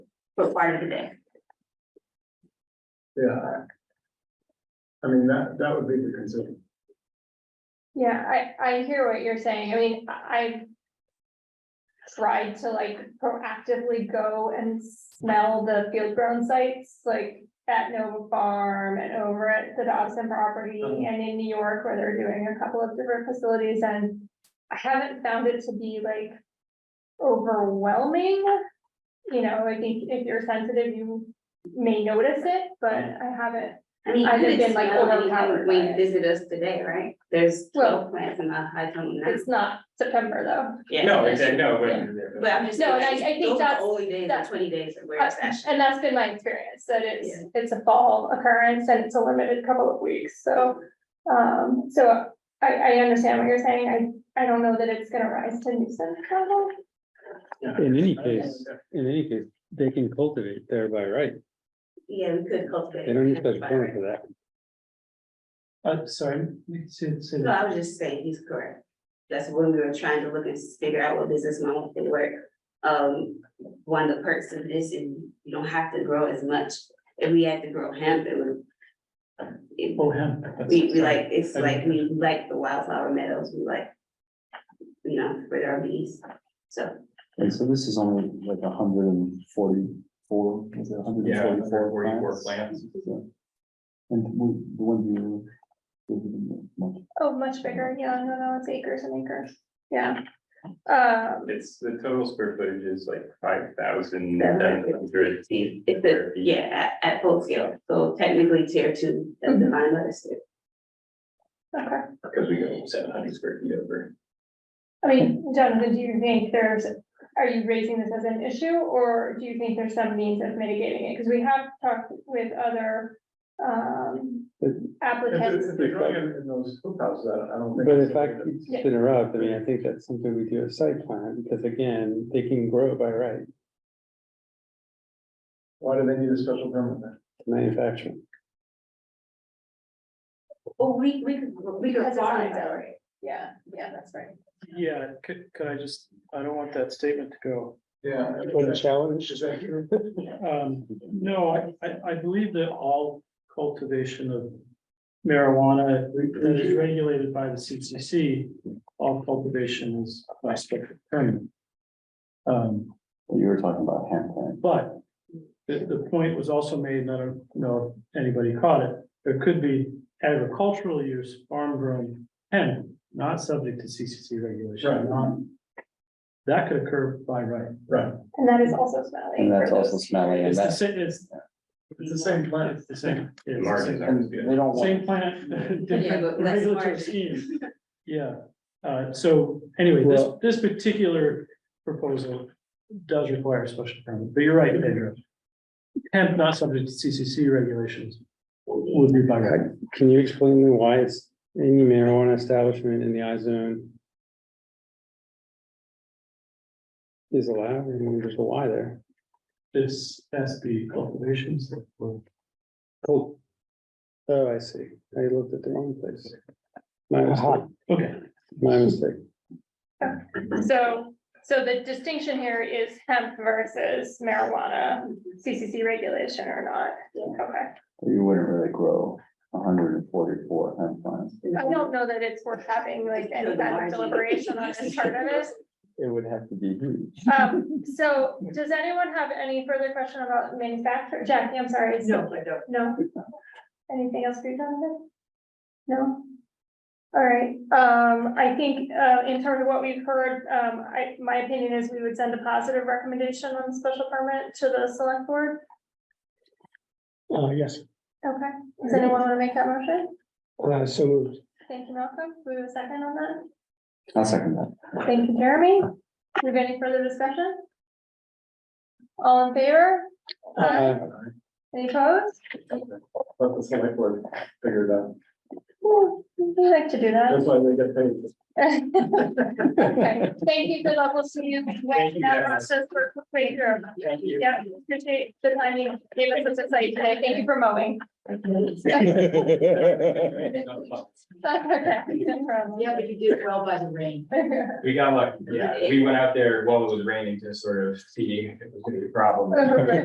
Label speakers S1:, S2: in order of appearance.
S1: for part of the day.
S2: Yeah. I- I mean, that, that would be the concern.
S3: Yeah, I, I hear what you're saying. I mean, I. I've Tried to like proactively go and smell the field grown sites, like at Nova Farm and over at the Dobson property
S2: Mhm.
S3: and in New York where they're doing a couple of different facilities and. I haven't found it to be like overwhelming. You know, I think if you're sensitive, you may notice it, but I haven't,
S1: I mean,
S3: I've
S1: you could
S3: been, like,
S1: smell when you
S3: overpowered by
S1: when you
S3: it.
S1: visit us today, right? There's
S3: Well-
S1: twelve plants in the high tunnel now.
S3: it's not September though.
S1: Yeah,
S2: No,
S1: that's-
S2: exactly, no, wait.
S1: But I'm just.
S3: No, and I-
S1: saying,
S3: I think
S1: those are the
S3: that's-
S1: Only days, the
S3: that's-
S1: twenty days of where
S3: Uh,
S1: it's actually.
S3: And that's been my experience, that it's, it's a fall occurrence and it's a limited couple of weeks, so. Um, so I, I understand what you're saying, I, I don't know that it's gonna rise to nuisance level.
S4: In any case, in any case, they can cultivate there by right.
S1: Yeah, we could cultivate.
S4: They don't need
S1: it,
S4: special
S1: but-
S4: permit for that.
S5: Uh, sorry, say, say
S1: No,
S5: that.
S1: I was just saying, he's correct. That's when we were trying to look and figure out what business model could work. Um, one of the perks of this is you don't have to grow as much. If we had to grow hemp, it would. it-
S5: Oh, yeah. that's-
S1: We, we like, it's
S5: Okay.
S1: like, we like the wildflower meadows, we like. You know, for our bees, so.
S6: And so this is only like hundred and forty-four, is it hundred and
S2: Yeah,
S6: forty-four?
S2: where you work plants.
S6: And we- the one you. gave them much-
S3: Oh, much bigger, yeah, no, no, it's acres and acres, yeah. Um,
S2: It's, the total square footage is like five
S1: Seven
S2: thousand nine
S1: hundred
S2: hundred.
S1: It's it's a, yeah, at, at full scale, so technically tier two of
S3: Mm-hmm.
S1: the vine lettuce.
S3: okay,
S2: Because we go seven hundred square feet over.
S3: I mean, Jonathan, do you think there's, are you raising this as an issue, or do you think there's some means of mitigating it? Because we have talked with other, um, applicants.
S2: If they're growing in in those hoop houses, I don't- I don't think.
S4: But
S2: it's
S4: if I
S2: something
S4: could
S3: Yeah.
S4: interrupt, I mean, I think that's something we do a site plan, because again, they can grow it by right,
S2: that- Why do they need a special permit then?
S4: manufacturing.
S1: Well, we, we could, we could
S3: Because it's
S1: farm it
S3: not
S1: though.
S3: Yeah, yeah, that's right.
S5: Yeah, could, could I just, I don't want that statement to go.
S2: Yeah.
S4: What a challenge.
S2: Is that here?
S5: Um, no, I, I, I believe that all cultivation of marijuana that is regulated by the CCC, all cultivation is by special permit. Um,
S6: You were talking about hand plant.
S5: But the, the point was also made, and I don't know if anybody caught it, there could be agricultural use, farm grown hemp, not subject to CCC
S2: Right.
S5: regulation, not. That could occur by right.
S2: Right,
S3: And that is also smelly.
S6: And that's
S3: for
S6: also
S3: those-
S6: smelly and
S5: It's the
S6: that's,
S5: same, it's,
S2: it's the same plant.
S5: it's the same. it's the
S2: Large
S5: same-
S6: and they don't want,
S5: Same plant,
S1: Yeah,
S5: different
S1: but less
S5: regulatory
S1: large.
S5: scheme. Yeah, uh, so anyway, this,
S4: Well-
S5: this particular proposal does require a special permit, but you're right, Pedro. Hemp not subject to CCC regulations would be by right.
S4: Can you explain to me why it's any marijuana establishment in the I zone? Is allowed, I mean, there's a why there.
S5: This SB cultivations that were
S4: Cool. Oh, I see. I looked at the wrong place. My mistake,
S5: okay,
S4: my mistake.
S3: So, so the distinction here is hemp versus marijuana, CCC regulation or not. Okay,
S6: you wouldn't really grow hundred and forty-four hand plants.
S3: I don't know that it's worth having like any kind of deliberation on this part of it.
S6: It would have to be huge.
S3: Um, so does anyone have any further question about manufacturer? Jackie, I'm sorry. it's-
S1: No, I don't.
S3: No? Anything else for you, Jonathan? No? All right, um, I think, uh, in terms of what we've heard, um, I, my opinion is we would send a positive recommendation on the special permit to the select board.
S4: Uh, yes,
S3: Okay, does anyone want to make that motion?
S4: uh, so moved.
S3: Thank you, Malcolm. Do we have a second on that?
S6: I'll second that.
S3: Thank you, Jeremy. Do we have any further discussion? All in favor?
S4: Uh,
S3: Any opposed?
S2: Let the select board figure it out.
S3: Ooh, We like to do that.
S2: That's why they get paid.
S3: Okay, Thank you, good luck, we'll see you.
S2: Thank you,
S3: That
S2: guys.
S3: process for- for later.
S2: Thank you.
S3: Yeah, appreciate the time you gave us this insight today, thank you for mowing. That's okay, no problem.
S7: Yeah, but you did well by the rain.
S8: We got lucky, yeah, we went out there while it was raining to sort of see if it was gonna be a problem.
S3: Right.